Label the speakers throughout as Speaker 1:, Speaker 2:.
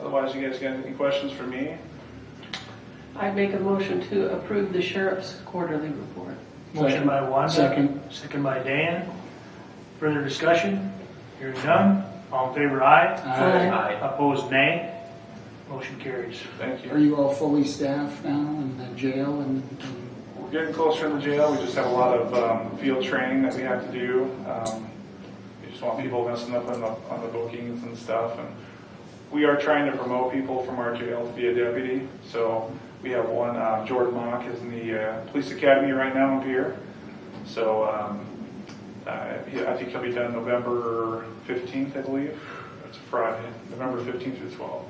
Speaker 1: Otherwise, you guys got any questions for me?
Speaker 2: I'd make a motion to approve the sheriff's quarterly report.
Speaker 3: Motion by Wanda.
Speaker 4: Second.
Speaker 3: Second by Dan. Further discussion? Hearing none. All in favor, aye.
Speaker 4: Aye.
Speaker 3: Opposed, nay. Motion carries.
Speaker 1: Thank
Speaker 4: Are
Speaker 1: you.
Speaker 4: you all fully staffed now in the jail and and
Speaker 1: We're getting closer in the jail. We just have a lot of um, field training that we have to do. Um, We just want people messing up on the, on the bookings and stuff. And we are trying to promote people from our jail to be a deputy. So we have one, uh, Jordan Mock is in the uh, police academy right now in Pierre. So um, uh, he- I think he'll be done November 15th, I believe. That's a Friday, November 15th through 12th.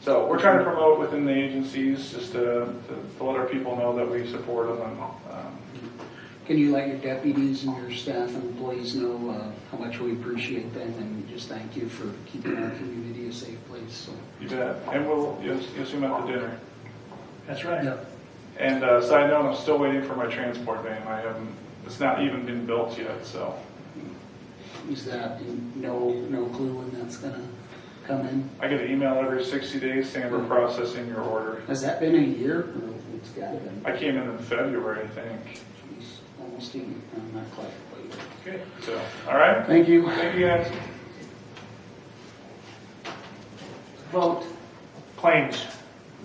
Speaker 1: So we're trying to promote within the agencies, just to, to- to let our people know that we support them and, um,
Speaker 4: can you let your deputies and your staff and employees know uh, how much we appreciate them and just thank you for keeping our community a safe place, so.
Speaker 1: you bet. And we'll, you'll, you'll see them at the dinner.
Speaker 3: That's right.
Speaker 1: And, uh, side note, I'm still waiting for my transport van. I haven't, it's not even been built yet, so.
Speaker 4: Is that, no, no clue when that's gonna come in?
Speaker 1: I get an email every sixty days saying we're processing your order.
Speaker 4: Has that been a year? Or It's gotta be,
Speaker 1: I came in in February, I think.
Speaker 4: geez, almost a year, I'm not quite.
Speaker 1: Okay. So, all right.
Speaker 4: Thank you.
Speaker 1: Thank you guys.
Speaker 2: Vote,
Speaker 3: Claims.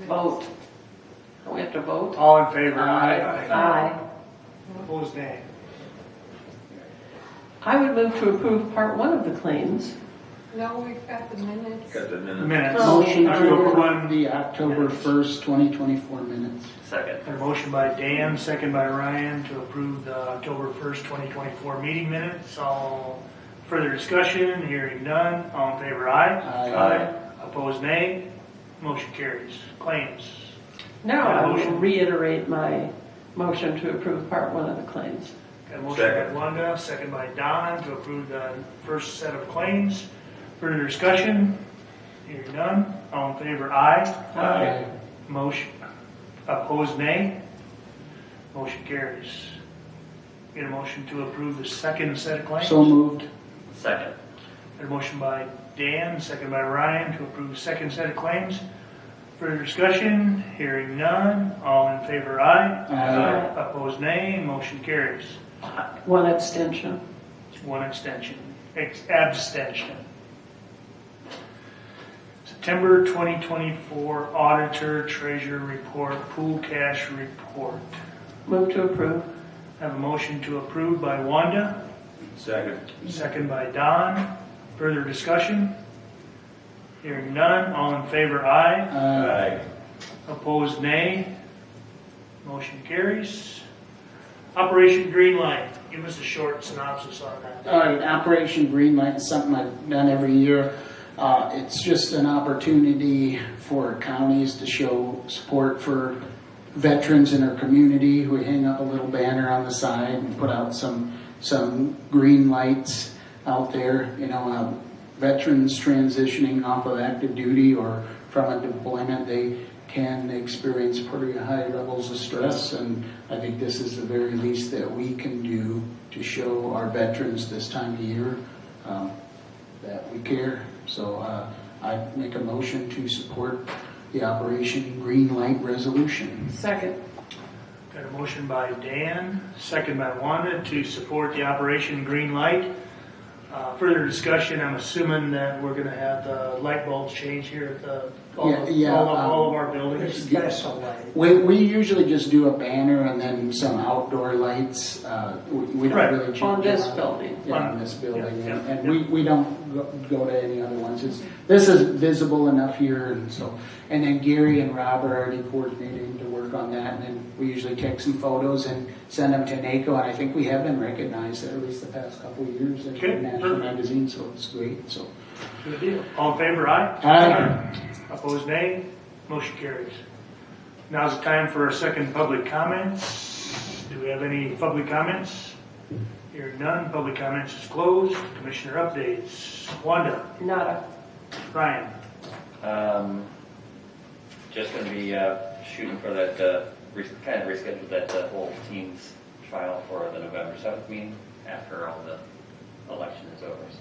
Speaker 2: vote. Don't we have to vote?
Speaker 3: All in favor?
Speaker 4: Aye.
Speaker 2: Aye.
Speaker 3: Opposed, nay.
Speaker 2: I would move to approve part one of the claims.
Speaker 5: No, we've got the minutes.
Speaker 6: Got the minute.
Speaker 3: Minutes.
Speaker 2: Oh.
Speaker 4: Motion
Speaker 3: I will
Speaker 4: to
Speaker 3: run-
Speaker 4: approve the October 1st, 2024 minutes.
Speaker 6: Second.
Speaker 3: A motion by Dan, second by Ryan to approve the October 1st, 2024 meeting minutes. All further discussion, hearing none. All in favor, aye.
Speaker 4: Aye.
Speaker 3: Opposed, nay. Motion carries. Claims.
Speaker 2: Now I will
Speaker 3: Motion.
Speaker 2: reiterate my motion to approve part one of the claims.
Speaker 3: Got a motion by
Speaker 6: Second.
Speaker 3: Wanda, second by Don to approve the first set of claims. Further discussion, hearing none. All in favor, aye.
Speaker 4: Aye.
Speaker 3: Motion, opposed, nay. Motion carries. Get a motion to approve the second set of claims.
Speaker 4: So moved.
Speaker 6: Second.
Speaker 3: Got a motion by Dan, second by Ryan to approve the second set of claims. Further discussion, hearing none. All in favor, aye.
Speaker 4: Aye.
Speaker 3: Opposed, nay. Motion carries.
Speaker 2: One abstention.
Speaker 3: One extension, ex- abstention. September 2024 Auditor Treasurer Report, Pool Cash Report.
Speaker 2: Move to approve.
Speaker 3: Have a motion to approve by Wanda,
Speaker 6: Second.
Speaker 3: second by Don. Further discussion? Hearing none, all in favor, aye.
Speaker 4: Aye.
Speaker 3: Opposed, nay. Motion carries. Operation Green Line, give us a short synopsis on that.
Speaker 4: All right, uh, Operation Greenlight is something I've done every year. Uh, It's just an opportunity for counties to show support for veterans in our community. We hang up a little banner on the side and put out some, some green lights out there, you know, um, veterans transitioning off of active duty or from a deployment, they can experience pretty high levels of stress, and I think this is the very least that we can do to show our veterans this time of year um, that we care. So uh, I make a motion to support the Operation Green Light Resolution.
Speaker 2: Second.
Speaker 3: Got a motion by Dan, second by Wanda to support the Operation Green Light. Uh, Further discussion, I'm assuming that we're gonna have the light bulbs changed here at the, all
Speaker 4: Yeah, yeah,
Speaker 3: all of
Speaker 4: um,
Speaker 3: all of our buildings.
Speaker 4: special We, we usually just do a banner and then some outdoor lights. Uh, we, we don't
Speaker 3: Right.
Speaker 4: really change
Speaker 2: On this
Speaker 4: a lot.
Speaker 2: building.
Speaker 4: Yeah, on this building,
Speaker 3: Yeah,
Speaker 4: and
Speaker 3: yeah,
Speaker 4: and we, we don't go- go to any other ones. It's, this is visible enough here, and so, and then Gary and Rob are already coordinating to work on that, and then we usually take some photos and send them to NACO, and I think we have been recognized at least the past couple of years in
Speaker 3: Okay,
Speaker 4: National
Speaker 3: perfect.
Speaker 4: Magazine, so it's great, so.
Speaker 3: Good deal. All in favor, aye?
Speaker 4: Aye.
Speaker 3: Opposed, nay? Motion carries. Now's the time for our second public comments. Do we have any public comments? Hearing none, public comments is closed. Commissioner updates. Wanda,
Speaker 2: Nada.
Speaker 3: Ryan,
Speaker 7: Um, just gonna be, uh, shooting for that, uh, re- kind of reschedule that, uh, whole team's trial for the November seventh meeting after all the election is over, so.